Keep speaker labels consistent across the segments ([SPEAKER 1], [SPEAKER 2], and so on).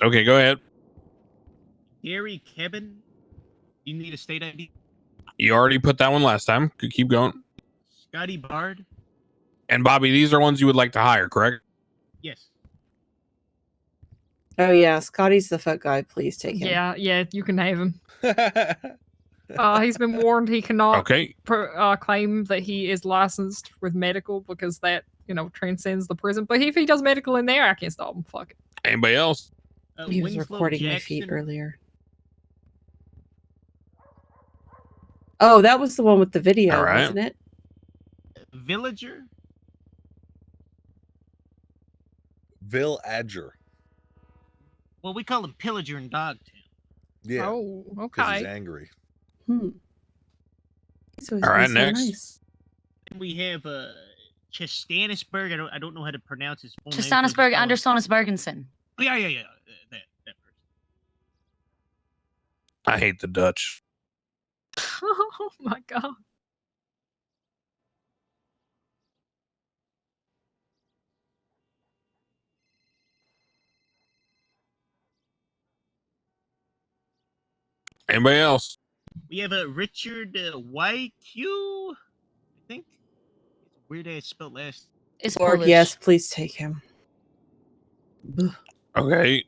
[SPEAKER 1] Okay, go ahead.
[SPEAKER 2] Gary Kevin, you need a state ID.
[SPEAKER 1] You already put that one last time. Could keep going.
[SPEAKER 2] Scotty Bard,
[SPEAKER 1] And Bobby, these are ones you would like to hire, correct?
[SPEAKER 2] yes.
[SPEAKER 3] Oh yeah, Scotty's the fuck guy. Please take him.
[SPEAKER 4] Yeah, yeah, you can have him. Uh, he's been warned he cannot
[SPEAKER 1] Okay.
[SPEAKER 4] pro- uh, claim that he is licensed with medical because that, you know, transcends the prison. But if he does medical in there, I can't stop him. Fuck it.
[SPEAKER 1] Anybody else?
[SPEAKER 2] Uh,
[SPEAKER 3] He was
[SPEAKER 2] Winslow
[SPEAKER 3] recording my feet
[SPEAKER 2] Jackson-
[SPEAKER 3] earlier. Oh, that was the one with the video,
[SPEAKER 1] All right.
[SPEAKER 3] wasn't it?
[SPEAKER 2] Villager,
[SPEAKER 5] Vil Adger.
[SPEAKER 2] well, we call him Pillager in Dogtown.
[SPEAKER 5] Yeah.
[SPEAKER 4] Oh,
[SPEAKER 5] 'cause he's
[SPEAKER 4] okay.
[SPEAKER 5] angry.
[SPEAKER 3] Hmm. He's always
[SPEAKER 1] All
[SPEAKER 3] been
[SPEAKER 1] right,
[SPEAKER 3] so
[SPEAKER 1] next.
[SPEAKER 3] nice.
[SPEAKER 2] And we have uh, Chastanisberg. I don't, I don't know how to pronounce his full name. 'cause it's
[SPEAKER 6] Chastanisberg
[SPEAKER 2] spelled-
[SPEAKER 6] Andersonis Bergensen.
[SPEAKER 2] Yeah, yeah, yeah. uh, That, that person.
[SPEAKER 1] I hate the Dutch.
[SPEAKER 4] oh my god.
[SPEAKER 1] Anybody else?
[SPEAKER 2] We have a Richard uh, YQ, I think. Weird ass spelled last.
[SPEAKER 6] Is
[SPEAKER 3] Lord,
[SPEAKER 6] Polish.
[SPEAKER 3] yes, please take him. Ugh.
[SPEAKER 1] Okay.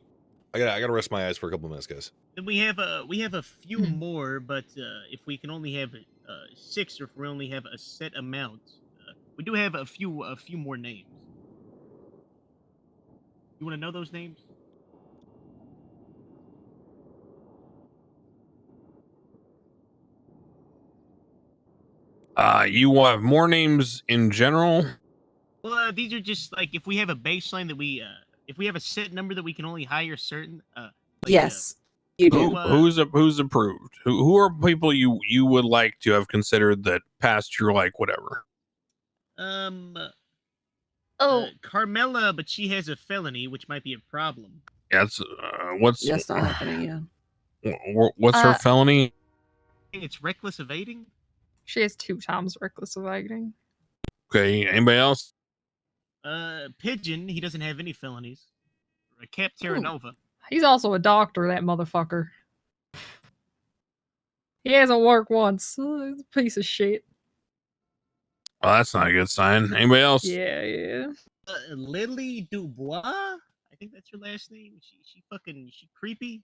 [SPEAKER 5] I gotta I gotta rest my eyes for a couple minutes, guys.
[SPEAKER 2] Then we have a we have a few
[SPEAKER 4] Mhm.
[SPEAKER 2] more, but uh, if we can only have uh, six, or if we only have a set amount, uh, we do have a few a few more names. You want to know those names?
[SPEAKER 1] Uh, you will have more names in general.
[SPEAKER 2] Well, uh, these are just like if we have a baseline that we uh, if we have a set number that we can only hire certain. Uh, like, uh,
[SPEAKER 3] yes, you do.
[SPEAKER 1] Who, who's a, who's approved? Who, who are people you you would like to have considered that passed your like whatever?
[SPEAKER 2] um. uh,
[SPEAKER 6] Oh,
[SPEAKER 2] Carmela, but she has a felony, which might be a problem.
[SPEAKER 1] That's uh, what's
[SPEAKER 3] That's not happening. Yeah.
[SPEAKER 1] wh- wh- what's her
[SPEAKER 6] Uh,
[SPEAKER 1] felony?
[SPEAKER 2] I think it's reckless evading.
[SPEAKER 4] She has two times reckless evading.
[SPEAKER 1] Okay. Anybody else?
[SPEAKER 2] Uh, Pigeon, he doesn't have any felonies. Uh, Cap
[SPEAKER 4] Ooh.
[SPEAKER 2] Terra Nova.
[SPEAKER 4] He's also a doctor, that motherfucker. He hasn't worked once. Uh, he's a piece of shit.
[SPEAKER 1] Well, that's not a good sign. Anybody else?
[SPEAKER 4] Yeah, yeah.
[SPEAKER 2] Uh, Lily Dubois, I think that's her last name. She she fucking she creepy.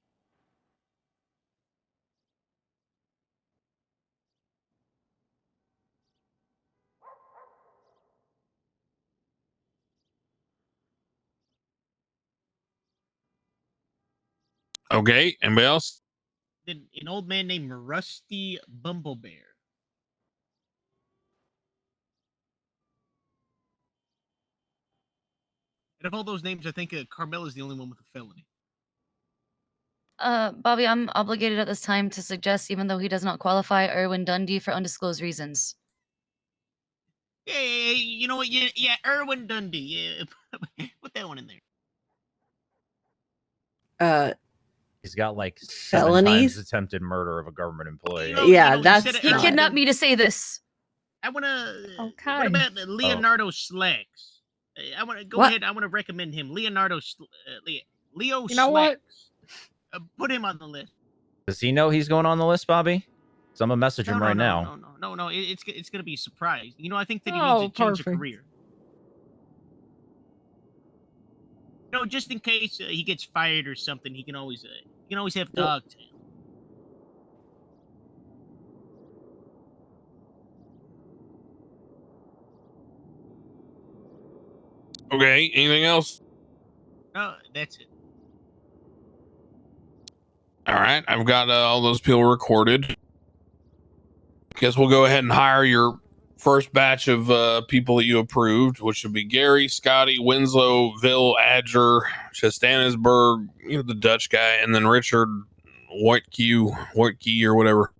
[SPEAKER 1] Okay. Anybody else?
[SPEAKER 2] Then an old man named Rusty Bumblebear. Out of all those names, I think uh, Carmela's the only one with a felony.
[SPEAKER 6] uh, Bobby, I'm obligated at this time to suggest, even though he does not qualify, Erwin Dundee for undisclosed reasons.
[SPEAKER 2] Yeah, yeah, yeah, you know what? Yeah, yeah, Erwin Dundee. Yeah, put that one in there.
[SPEAKER 3] Uh,
[SPEAKER 7] He's got like seven
[SPEAKER 3] Felonies?
[SPEAKER 7] times attempted murder of a government employee.
[SPEAKER 2] know-
[SPEAKER 3] yeah,
[SPEAKER 2] know, you
[SPEAKER 3] that's
[SPEAKER 2] said it
[SPEAKER 6] He
[SPEAKER 2] Alright.
[SPEAKER 6] kidnapped me Oh, to say this.
[SPEAKER 2] I want to. What
[SPEAKER 4] Okay.
[SPEAKER 2] about
[SPEAKER 7] Oh.
[SPEAKER 2] uh, Leonardo Slacks? Uh, I want to go
[SPEAKER 3] What?
[SPEAKER 2] ahead. I want to recommend him, Leonardo Sl- uh, Le- Leo
[SPEAKER 4] You know what?
[SPEAKER 2] Slacks. Uh, put him on the list.
[SPEAKER 7] Does he know he's going on the list, Bobby? So I'm gonna message him
[SPEAKER 2] no,
[SPEAKER 7] right
[SPEAKER 2] no,
[SPEAKER 7] now.
[SPEAKER 2] No, no, no, no, no. It, it's g- it's gonna be a surprise. You know, I think that he
[SPEAKER 4] Oh,
[SPEAKER 2] needs to change a
[SPEAKER 4] perfect.
[SPEAKER 2] career. No, just in case uh, he gets fired or something, he can always uh, he can always have
[SPEAKER 3] Well-
[SPEAKER 2] dog tail.
[SPEAKER 1] Okay. Anything else?
[SPEAKER 2] No, that's it.
[SPEAKER 1] All right, I've got uh, all those people recorded. Guess we'll go ahead and hire your first batch of uh, people that you approved, which would be Gary, Scotty, Winslow, Vil, Adger, Chastanisberg, you know the Dutch guy, and then Richard Whitekey, Whitekey or whatever.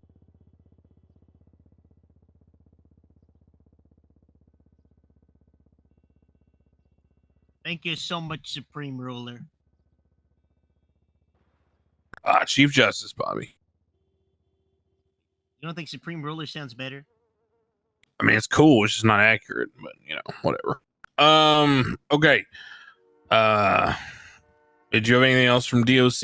[SPEAKER 2] Thank you so much, Supreme Ruler.
[SPEAKER 1] Uh, Chief Justice Bobby.
[SPEAKER 2] You don't think Supreme Ruler sounds better?
[SPEAKER 1] I mean, it's cool. It's just not accurate, but you know, whatever. Um. Okay. Uh. Did you have anything else from DOC?